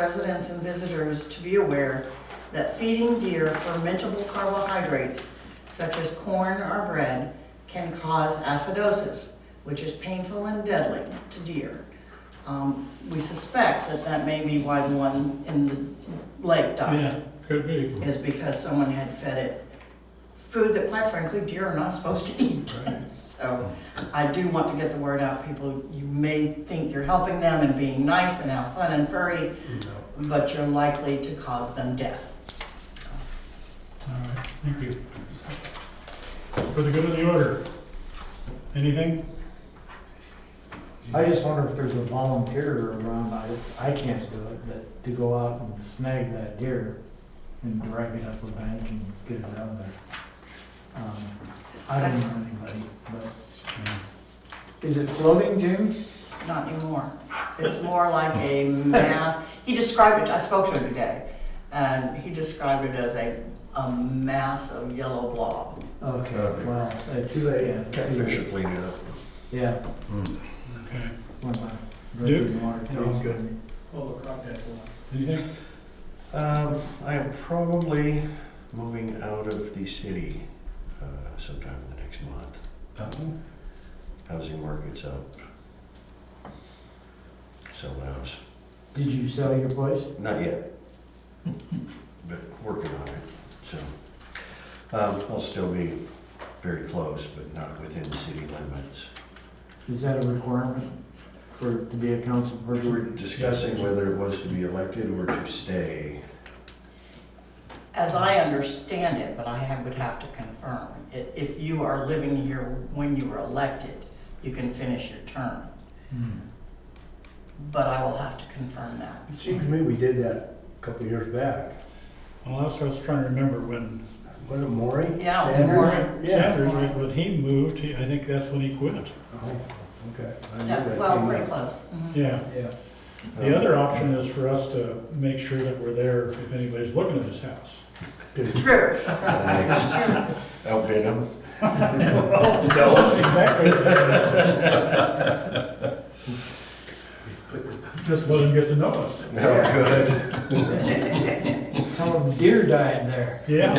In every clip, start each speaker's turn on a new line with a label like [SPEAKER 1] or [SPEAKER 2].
[SPEAKER 1] residents and visitors to be aware that feeding deer fermentable carbohydrates such as corn or bread can cause acidosis, which is painful and deadly to deer. Um, We suspect that that may be why the one in the lake died,
[SPEAKER 2] Yeah, could be.
[SPEAKER 1] is because someone had fed it food that quite frankly deer are not supposed to eat. So I do want to get the word out, people, you may think you're helping them and being nice and have fun and furry, but you're likely to cause them death.
[SPEAKER 2] All right, thank you. For the good of the order, anything?
[SPEAKER 3] I just wonder if there's a volunteer around, I, I can't do it, but to go out and snag that deer and drag it up a bank and get it out of there. Um, I don't know anybody, but,
[SPEAKER 2] Yeah.
[SPEAKER 3] is it floating, Jim?
[SPEAKER 1] Not anymore. It's more like a mass, he described it, I spoke to him today, and he described it as a, a mass of yellow blob.
[SPEAKER 3] Okay,
[SPEAKER 4] Okay.
[SPEAKER 3] well, it's.
[SPEAKER 5] Too
[SPEAKER 3] yeah,
[SPEAKER 5] late,
[SPEAKER 3] too
[SPEAKER 5] catfish will
[SPEAKER 3] late.
[SPEAKER 5] clean it up.
[SPEAKER 3] Yeah.
[SPEAKER 5] Mm.
[SPEAKER 2] Okay,
[SPEAKER 3] when my
[SPEAKER 2] Duke?
[SPEAKER 3] drinking water
[SPEAKER 5] No, I'm
[SPEAKER 3] tastes
[SPEAKER 5] good.
[SPEAKER 3] good.
[SPEAKER 2] anything?
[SPEAKER 5] Um, I am probably moving out of the city uh, sometime in the next month. Housing market's up. Sell the house.
[SPEAKER 3] Did you sell your place?
[SPEAKER 5] Not yet, but working on it, so. Um, I'll still be very close, but not within the city limits.
[SPEAKER 3] Is that a requirement for, to be a council
[SPEAKER 5] We were
[SPEAKER 3] person?
[SPEAKER 5] discussing whether it was to be elected or to stay.
[SPEAKER 1] As I understand it, but I have- would have to confirm, i- if you are living here when you were elected, you can finish your term,
[SPEAKER 3] Hmm.
[SPEAKER 1] but I will have to confirm that.
[SPEAKER 6] It seems to me we did that a couple of years back.
[SPEAKER 2] Well, that's what I was trying to remember when
[SPEAKER 6] Was it Maury?
[SPEAKER 1] Yeah, it was
[SPEAKER 6] Sanders?
[SPEAKER 1] Maury.
[SPEAKER 6] Yeah.
[SPEAKER 2] Sanders, when when he moved, he- I think that's when he quit.
[SPEAKER 6] Oh, okay. I knew
[SPEAKER 1] Yeah,
[SPEAKER 6] that
[SPEAKER 1] well,
[SPEAKER 6] came
[SPEAKER 1] pretty
[SPEAKER 6] up.
[SPEAKER 1] close. Mhm.
[SPEAKER 2] Yeah.
[SPEAKER 6] Yeah.
[SPEAKER 2] The other option is for us to make sure that we're there if anybody's looking at his house.
[SPEAKER 1] True.
[SPEAKER 5] Thanks. Outbid them.
[SPEAKER 2] No. Exactly. Just let him get to know us.
[SPEAKER 5] No, good.
[SPEAKER 3] Tell them deer died there.
[SPEAKER 2] Yeah,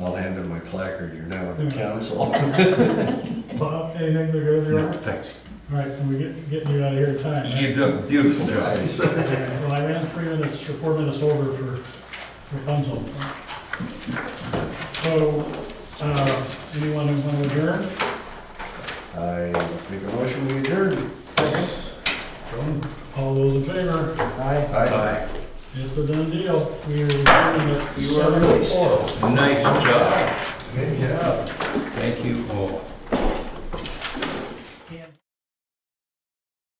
[SPEAKER 5] I'll hand him my placard, you're now on the council.
[SPEAKER 2] Bob, anything for the good of the order?
[SPEAKER 4] No, thanks.
[SPEAKER 2] All right, can we get, get you out of here in time? right?
[SPEAKER 4] You do a beautiful job.
[SPEAKER 5] Nice.
[SPEAKER 2] Okay, Well, I ran three minutes, or four minutes over for Rapunzel. So, uh, anyone who want to adjourn?
[SPEAKER 5] I make a motion, we adjourn.
[SPEAKER 2] All those in favor?
[SPEAKER 3] Aye.
[SPEAKER 5] Aye.
[SPEAKER 2] It's a done deal. We are adjourned at oh
[SPEAKER 5] You are released.
[SPEAKER 2] four.
[SPEAKER 4] Nice job.
[SPEAKER 5] Good job.
[SPEAKER 4] Thank you all.